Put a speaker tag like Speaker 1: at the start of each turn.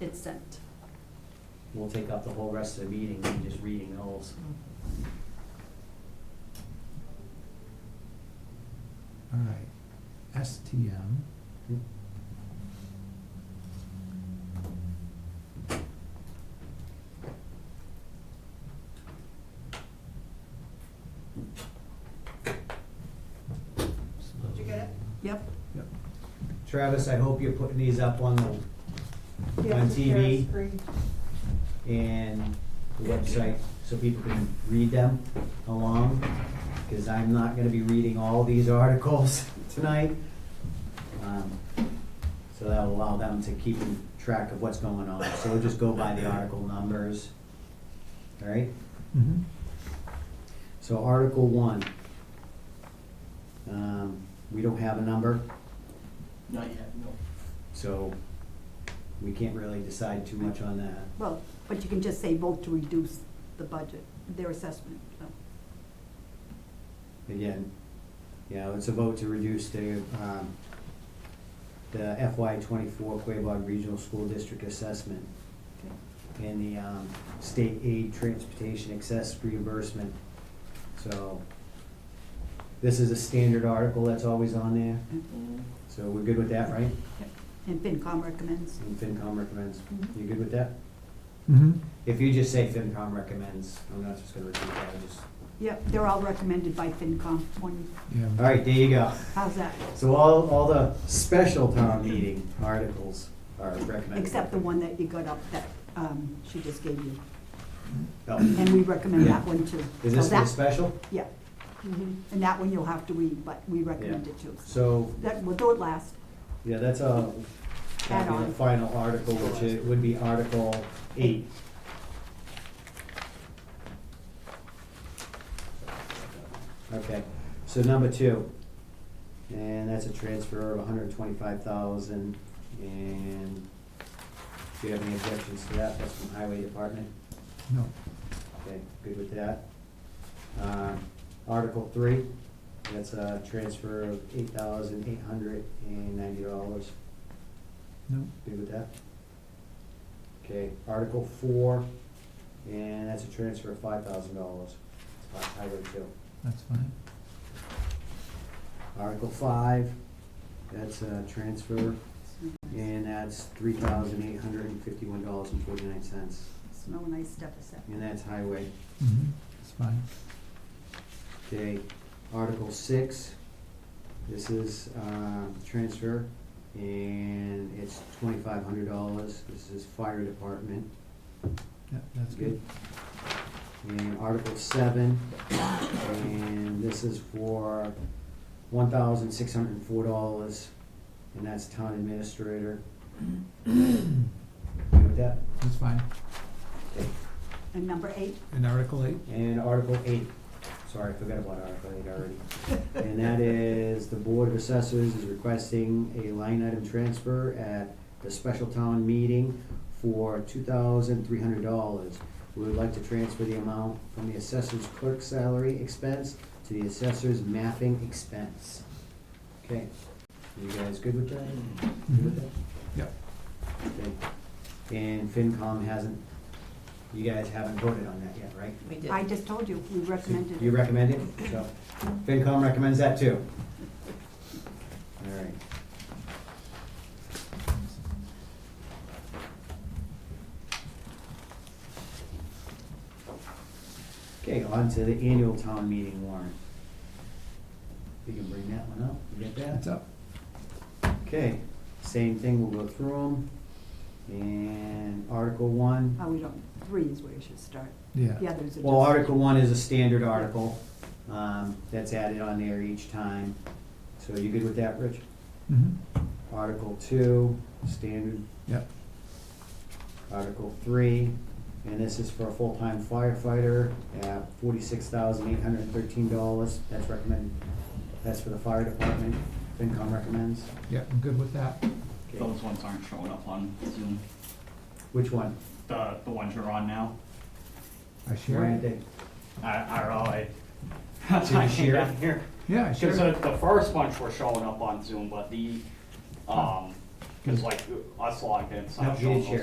Speaker 1: it's sent.
Speaker 2: We'll take up the whole rest of the meeting and just reading those.
Speaker 3: All right, STM.
Speaker 4: Did you get
Speaker 1: Yep.
Speaker 3: Yep.
Speaker 2: Travis, I hope you're putting these up on the,
Speaker 4: it?
Speaker 2: On TV.
Speaker 4: Yeah, screen.
Speaker 2: and the website, so people can read them along, because I'm not gonna be reading all these articles tonight. Um, So that'll allow them to keep track of what's going on, so we'll just go by the article numbers, all right?
Speaker 3: Mm-hmm.
Speaker 2: So Article one, um, we don't have a number,
Speaker 5: Not yet, no.
Speaker 2: so we can't really decide too much on that.
Speaker 1: Well, but you can just say vote to reduce the budget, their assessment, so.
Speaker 2: Again, you know, it's a vote to reduce the, um, the FY twenty-four Quabog Regional School District assessment
Speaker 1: okay.
Speaker 2: and the, um, state aid transportation excess reimbursement. So this is a standard article that's always on there, so we're good with that, right?
Speaker 1: Yep. And FinCom recommends.
Speaker 2: And FinCom recommends.
Speaker 1: Mhm.
Speaker 2: You good with that?
Speaker 3: Mm-hmm.
Speaker 2: If you just say FinCom recommends, I'm not just gonna repeat that, I just,
Speaker 1: Yep, they're all recommended by FinCom, one,
Speaker 2: all
Speaker 3: Yeah.
Speaker 2: right, there you go.
Speaker 1: how's that?
Speaker 2: So all, all the special town meeting articles are recommended.
Speaker 1: Except the one that you got up that um, she just gave you,
Speaker 2: Oh.
Speaker 1: and we recommend that one too. So
Speaker 2: Is this for the
Speaker 1: Oh, that-
Speaker 2: special?
Speaker 1: Yeah, and that one you'll have to read, but we recommend
Speaker 2: Yeah.
Speaker 1: it too.
Speaker 2: So,
Speaker 1: That, we'll do it last,
Speaker 2: yeah, that's a,
Speaker 1: Add
Speaker 2: that'd be
Speaker 1: on.
Speaker 2: the final article, which it would be Article eight. Okay, so number two, and that's a transfer of hundred and twenty-five thousand, and do you have any objections to that? That's from Highway Department.
Speaker 3: No.
Speaker 2: Okay, good with that. Um, Article three, that's a transfer of eight thousand eight hundred and ninety dollars.
Speaker 3: No.
Speaker 2: Good with that? Okay, Article four, and that's a transfer of five thousand dollars. Highway two.
Speaker 3: That's fine.
Speaker 2: Article five, that's a transfer, and that's three thousand eight hundred and fifty-one dollars and forty-nine cents.
Speaker 1: snow and ice deficit.
Speaker 2: And that's highway.
Speaker 3: Mm-hmm. That's fine.
Speaker 2: Okay, Article six, this is, uh, transfer, and it's twenty-five hundred dollars, this is fire department,
Speaker 3: Yeah, that's
Speaker 2: good.
Speaker 3: good.
Speaker 2: And Article seven, and this is for one thousand six hundred and four dollars, and that's town administrator. Good with that?
Speaker 3: That's fine.
Speaker 2: Okay.
Speaker 1: And number eight,
Speaker 3: And Article eight?
Speaker 2: And Article eight, sorry, I forgot about Article eight already. And that is, the Board of Assessors is requesting a line item transfer at the special town meeting for two thousand three hundred dollars. We would like to transfer the amount from the assessor's clerk salary expense to the assessor's mapping expense. Okay, you guys good with that?
Speaker 3: Mm-hmm.
Speaker 2: Good with that?
Speaker 3: Yep.
Speaker 2: Okay. And FinCom hasn't, you guys haven't voted on that yet, right?
Speaker 6: We did.
Speaker 1: I just told you, we recommended
Speaker 2: You
Speaker 1: it.
Speaker 2: recommend it? So FinCom recommends that too. All right. Okay, on to the annual town meeting warrant. You can bring that one up, you get that?
Speaker 3: It's up.
Speaker 2: Okay, same thing, we'll go through them. And Article one,
Speaker 1: Oh, we don't, three is where you should start.
Speaker 3: Yeah.
Speaker 1: The others are just.
Speaker 2: Well, Article one is a standard article, um, that's added on there each time. So you good with that, Rich?
Speaker 3: Mm-hmm.
Speaker 2: Article two, standard.
Speaker 3: Yep.
Speaker 2: Article three, and this is for a full-time firefighter at forty-six thousand eight hundred and thirteen dollars. That's recommended, that's for the fire department, FinCom recommends.
Speaker 3: Yeah, I'm good with that.
Speaker 5: Those ones aren't showing up on Zoom.
Speaker 2: Which one?
Speaker 5: The, the ones you're on now
Speaker 3: I
Speaker 2: Why
Speaker 3: share
Speaker 2: aren't
Speaker 3: it.
Speaker 2: they?
Speaker 5: I, I don't know, I. That's why I
Speaker 2: Did you
Speaker 5: came
Speaker 2: share it?
Speaker 5: down here.
Speaker 3: Yeah, I share
Speaker 5: Cause
Speaker 3: it.
Speaker 5: the, the first bunch were showing up on Zoom, but the, um, cause like us logged in, it's
Speaker 2: No,
Speaker 5: not
Speaker 2: you
Speaker 5: showing
Speaker 2: didn't
Speaker 5: those
Speaker 2: share.